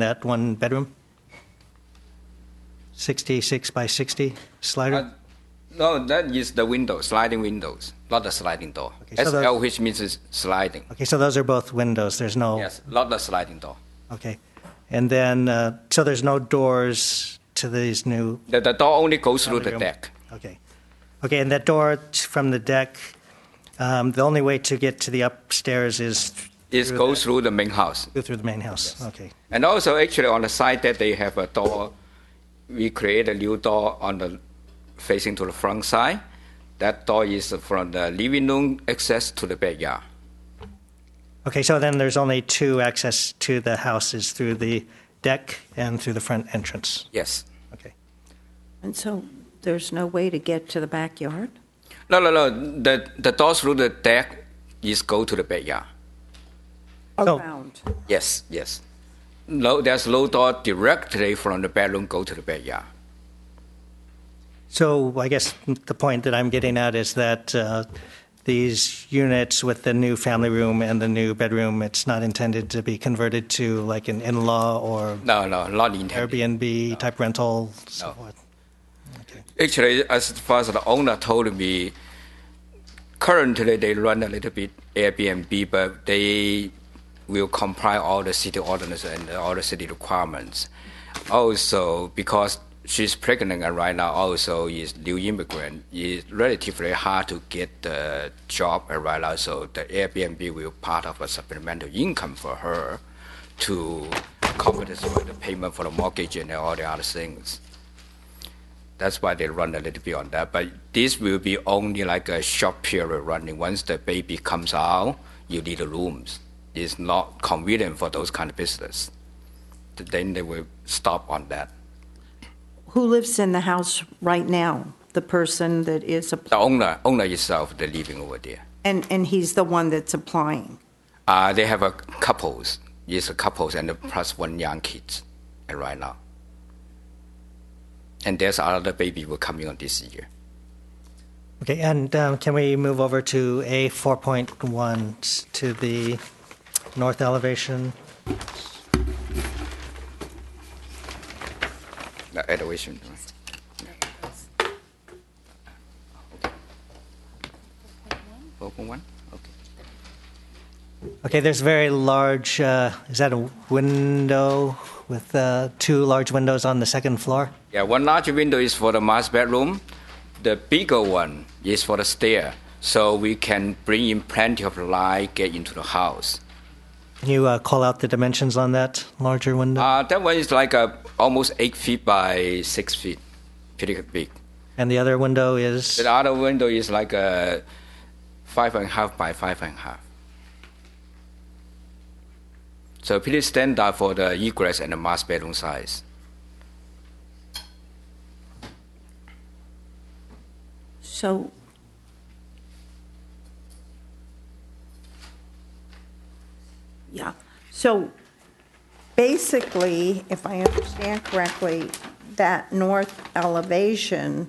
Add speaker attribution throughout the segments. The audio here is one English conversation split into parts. Speaker 1: that one bedroom? 66 by 60
Speaker 2: Uh,
Speaker 1: slider?
Speaker 2: no, that is the window, sliding windows, not the sliding door.
Speaker 1: Okay, so
Speaker 2: SL,
Speaker 1: the-
Speaker 2: which means is sliding.
Speaker 1: Okay, so those are both windows, there's no...
Speaker 2: Yes, not the sliding door.
Speaker 1: Okay. And then, uh, so there's no doors to these new...
Speaker 2: The, the door only goes through the deck.
Speaker 1: Okay. Okay, and that door t- from the deck, um, the only way to get to the upstairs is
Speaker 2: It goes through the main house.
Speaker 1: through the main house? Okay.
Speaker 2: And also, actually, on the side that they have a door, we create a new door on the facing to the front side. That door is from the living room access to the backyard.
Speaker 1: Okay, so then there's only two access to the house is through the deck and through the front entrance?
Speaker 2: Yes.
Speaker 1: Okay.
Speaker 3: And so there's no way to get to the backyard?
Speaker 2: No, no, no. The the door through the deck is go to the backyard.
Speaker 1: So-
Speaker 3: Around?
Speaker 2: Yes, yes. No, there's no door directly from the bedroom go to the backyard.
Speaker 1: So I guess the point that I'm getting at is that uh, these units with the new family room and the new bedroom, it's not intended to be converted to like an in-law or
Speaker 2: No, no, not intended.
Speaker 1: Airbnb type rental, so
Speaker 2: No.
Speaker 1: forth.
Speaker 2: Actually, as far as the owner told me, currently they run a little bit Airbnb, but they will comply all the city ordinance and all the city requirements. Also, because she's pregnant and right now also is new immigrant, it's relatively hard to get the job and right now, so the Airbnb will part of a supplemental income for her to compensate for the payment for the mortgage and all the other things. That's why they run a little bit on that. But this will be only like a short period running. Once the baby comes out, you need the rooms. It's not convenient for those kind of business. Then they will stop on that.
Speaker 3: Who lives in the house right now? The person that is, app-
Speaker 2: The owner, owner itself, they're living over there.
Speaker 3: and, and he's the one that's applying?
Speaker 2: Uh, they have a couples. It's a couples and plus one young kids uh, right now. And there's another baby will coming on this year.
Speaker 1: Okay, and um, can we move over to A 4.1 to the north elevation?
Speaker 2: The elevation. right? Four point one? Okay.
Speaker 1: Okay, there's very large, uh, is that a window with uh, two large windows on the second floor?
Speaker 2: Yeah, one large window is for the master bedroom. The bigger one is for the stair, so we can bring in plenty of light get into the house.
Speaker 1: Can you uh, call out the dimensions on that larger window?
Speaker 2: Uh, that one is like a, almost eight feet by six feet, pretty big.
Speaker 1: And the other window is,
Speaker 2: The other window is like a five and a half by five and a half. So pretty standard for the egress and the master bedroom size.
Speaker 3: So, yeah, so basically, if I understand correctly, that north elevation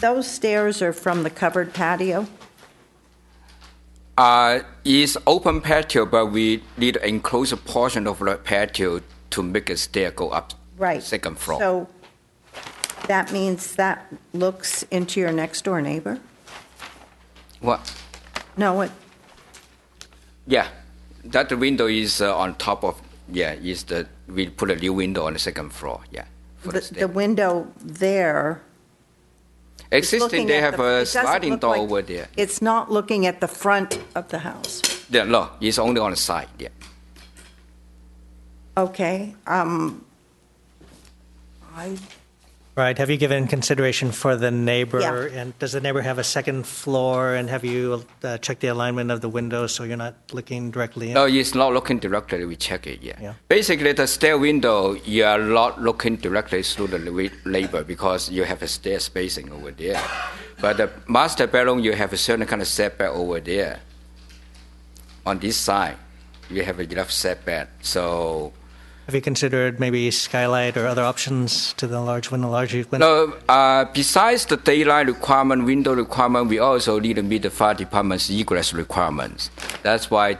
Speaker 3: those stairs are from the covered patio?
Speaker 2: Uh, it's open patio, but we need to enclose a portion of the patio to make a stair go up
Speaker 3: Right.
Speaker 2: second floor.
Speaker 3: So that means that looks into your next-door neighbor?
Speaker 2: what?
Speaker 3: No, it,
Speaker 2: Yeah, that window is uh, on top of yeah. Is the we put a new window on the second floor? Yeah, for the,
Speaker 3: the
Speaker 2: stair.
Speaker 3: the window there
Speaker 2: Existing,
Speaker 3: looking
Speaker 2: they
Speaker 3: at
Speaker 2: have
Speaker 3: the- it
Speaker 2: a
Speaker 3: doesn't
Speaker 2: sliding
Speaker 3: look
Speaker 2: door
Speaker 3: like-
Speaker 2: over there.
Speaker 3: It's not looking at the front of the house.
Speaker 2: Yeah, no, it's only on the side. Yeah.
Speaker 3: Okay, um, I,
Speaker 1: right, have you given consideration for the neighbor?
Speaker 3: Yeah.
Speaker 1: And does the neighbor have a second floor? And have you uh, checked the alignment of the windows so you're not looking directly in?
Speaker 2: No, it's not looking directly. We check it. Yeah.
Speaker 1: Yeah.
Speaker 2: Basically, the stair window, you are not looking directly through the la- labor because you have a stair spacing over there. But the master bedroom, you have a certain kind of setback over there. On this side, you have enough setback. So
Speaker 1: Have you considered maybe skylight or other options to the large window, larger window?
Speaker 2: No, uh, besides the daylight requirement, window requirement, we also need to meet the fire department's egress requirements. That- That's why